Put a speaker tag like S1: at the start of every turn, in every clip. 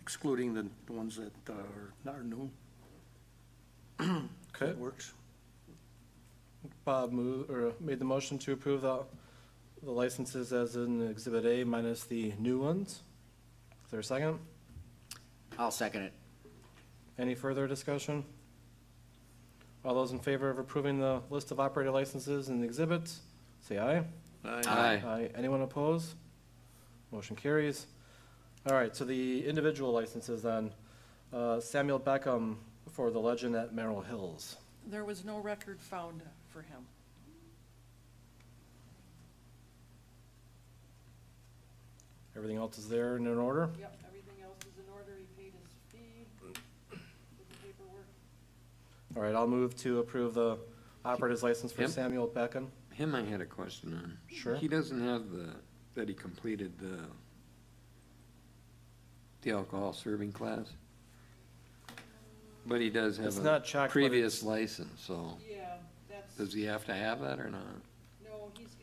S1: excluding the the ones that uh, are not new.
S2: Okay,
S1: It works.
S2: Bob moved, or made the motion to approve the, the licenses as in Exhibit A minus the new ones. Is there a second?
S3: I'll second it.
S2: Any further discussion? All those in favor of approving the list of operator licenses and exhibits, say aye.
S3: Aye.
S2: Aye. Anyone oppose? Motion carries. All right, so the individual licenses then. Uh, Samuel Beckham for the Legend at Merrill Hills.
S4: There was no record found for him.
S2: Everything else is there and in order?
S4: Yep, everything else is in order, he paid his fee, did the paperwork.
S2: All right, I'll move to approve the operator's license for
S5: Yep.
S2: Samuel Beckham.
S5: Uh, Him I had a question on.
S2: Sure.
S5: He doesn't have the, that he completed the, the alcohol serving class? But he does have
S2: It's
S5: a.
S2: not checked, but
S5: Previous license, so
S4: Yeah, that's,
S5: does he have to have that or not?
S4: no, he's,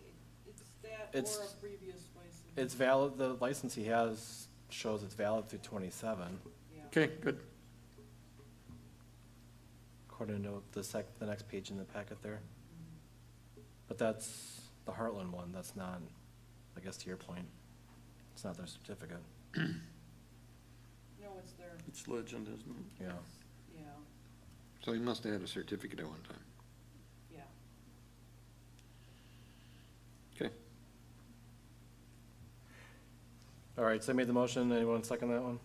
S4: it's that
S2: It's-
S4: or a previous license,
S2: It's valid, the license he has shows it's valid through twenty-seven,
S4: yeah.
S5: Okay, good.
S2: according to the sec, the next page in the packet there. But that's the Heartland one, that's not, I guess to your point, it's not their certificate,
S4: No, it's there,
S1: It's legend, isn't it?
S2: yeah.
S4: yeah,
S5: So he must have had a certificate at one time.
S4: yeah.
S5: Okay.
S2: All right, so I made the motion, anyone second that one?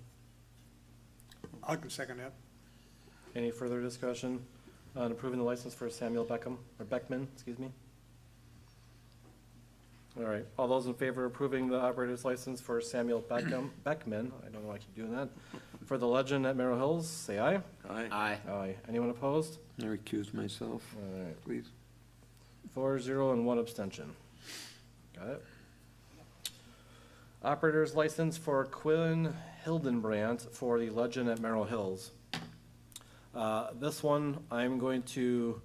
S6: I can second that.
S2: Any further discussion on approving the license for Samuel Beckham, or Beckman, excuse me? All right, all those in favor of approving the operator's license for Samuel Beckham, Beckman, I don't know why I keep doing that, for the legend at Merrill Hills, say aye.
S3: Aye.
S2: Aye. Anyone opposed?
S5: I recuse myself,
S2: All right,
S5: please.
S2: four, zero, and one abstention. Got it? Operator's license for Quinn Hildenbrandt for the Legend at Merrill Hills. Uh, This one, I'm going to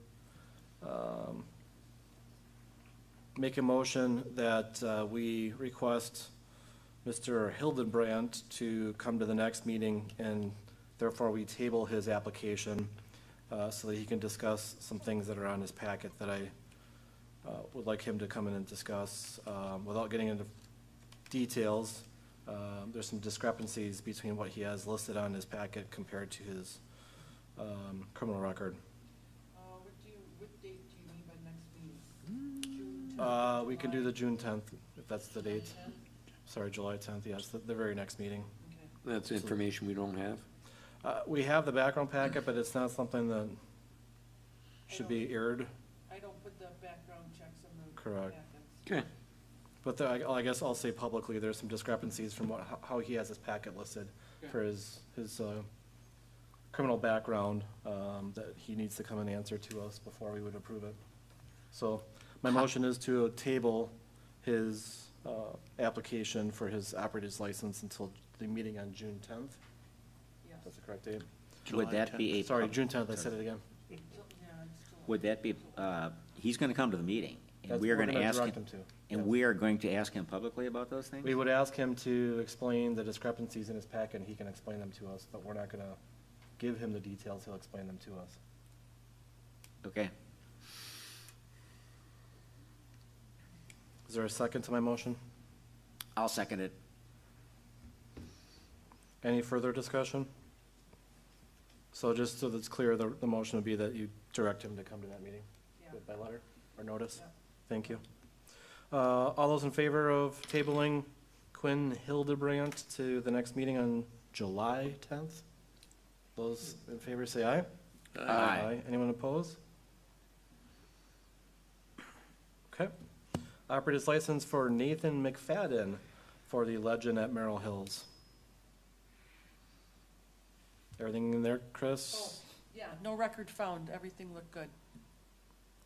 S2: um, make a motion that uh, we request Mr. Hildenbrandt to come to the next meeting, and therefore we table his application uh, so that he can discuss some things that are on his packet that I uh, would like him to come in and discuss, um, without getting into details. Um, There's some discrepancies between what he has listed on his packet compared to his um, criminal record.
S4: Uh, what do you, what date do you need by next meeting? June
S2: Uh,
S4: 10th,
S2: We can do the
S4: July?
S2: June 10th, if that's the
S4: July
S2: date.
S4: 10th?
S2: Sorry, July 10th, yes, the- the very next meeting.
S4: Okay.
S5: That's information we don't have.
S2: Uh, We have the background packet, but it's not something that should be aired.
S4: I don't put the background checks on the
S2: Correct.
S4: packets.
S5: Okay.
S2: But the- I I guess I'll say publicly, there's some discrepancies from what, how he has his packet listed for his, his uh, criminal background, um, that he needs to come and answer to us before we would approve it. So my motion is to table his uh, application for his operator's license until the meeting on June 10th.
S4: Yes.
S2: That's the correct date.
S3: Would that be a?
S2: Sorry,
S3: pub-
S2: June 10th, I said it again.
S4: Ju- Yeah, it's July.
S3: Would that be, uh, he's gonna come to the meeting, and
S2: That's-
S3: we are
S2: we're
S3: gonna
S2: gonna
S3: ask
S2: direct
S3: him.
S2: him to,
S3: And
S2: yes.
S3: we are going to ask him publicly about those things?
S2: We would ask him to explain the discrepancies in his packet, and he can explain them to us, but we're not gonna give him the details, he'll explain them to us.
S3: Okay,
S2: Is there a second to my motion?
S3: I'll second it.
S2: Any further discussion? So just so that's clear, the, the motion would be that you direct him to come to that meeting
S4: Yeah.
S2: by letter or notice?
S4: Yeah.
S2: Thank you. Uh, all those in favor of tabling Quinn Hildebrandt to the next meeting on July tenth? Those in favor say aye?
S3: Aye.
S2: Anyone opposed? Okay. Operator's license for Nathan McFadden for the Legend at Merrill Hills. Everything in there,
S4: Oh,
S2: Chris?
S4: Yeah, no record found, everything looked good.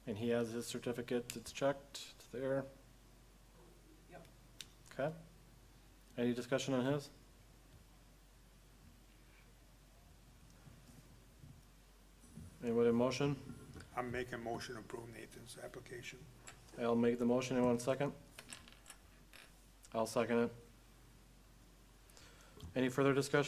S2: And he has his certificate, it's checked, it's there.
S4: Yep.
S2: Okay. Any discussion on his? Anyone in motion?
S6: I'm making a motion to approve Nathan's application.
S2: I'll make the motion in one second. I'll second it. Any further discussion?